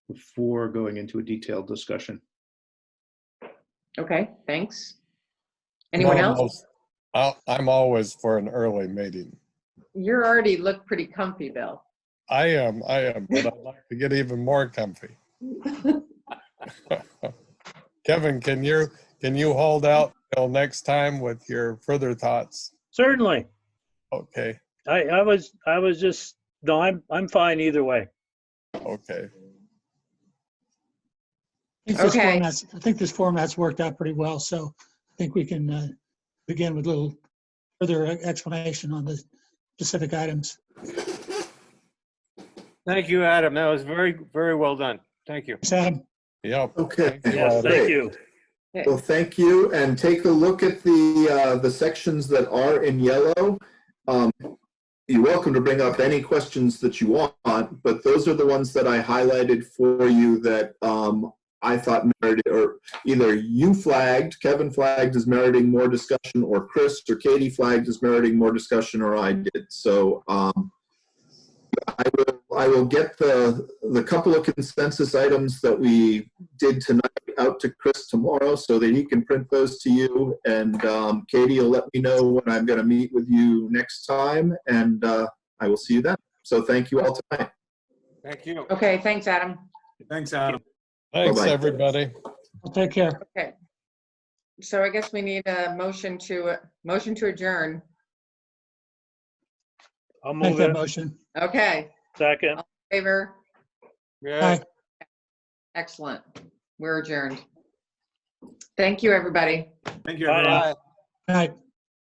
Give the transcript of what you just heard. before going into a detailed discussion. Okay, thanks. Anyone No, else? I'll- I'm always for an early meeting. You're already look pretty comfy, Bill. I am, I am, but I'd like to get even more comfy. Kevin, can you, can you hold out till next time with your further thoughts? Certainly. Okay, I, I was, I was just, no, I'm, I'm fine either way. okay. I think this Okay. format's- I think this format's worked out pretty well, so I think we can uh, begin with a little further e-, explanation on the specific items. Thank you, Adam. That was very, very well done. Thank you. Thanks, Adam. Yep. Okay. Yes, thank Great. you. Well, thank you, and take a look at the, uh, the sections that are in yellow. Um, You're welcome to bring up any questions that you want, but those are the ones that I highlighted for you that um, I thought merited, or either you flagged, Kevin flagged as meriting more discussion, or Chris or Katie flagged as meriting more discussion, or I did. So um, I will, I will get the, the couple of consensus items that we did tonight out to Chris tomorrow so that he can print those to you. And um, Katie will let me know when I'm going to meet with you next time, and uh, I will see you then. So thank you all tonight. Thank you. Okay, thanks, Adam. Thanks, Adam. Thanks, Bye-bye. everybody. Well, Take care. So I guess we need a motion to, motion to adjourn. I'll Make move that in motion. Okay, second. favor, Yeah. excellent. We're adjourned. Thank you, everybody. Thank you, Bye. everyone. Good night.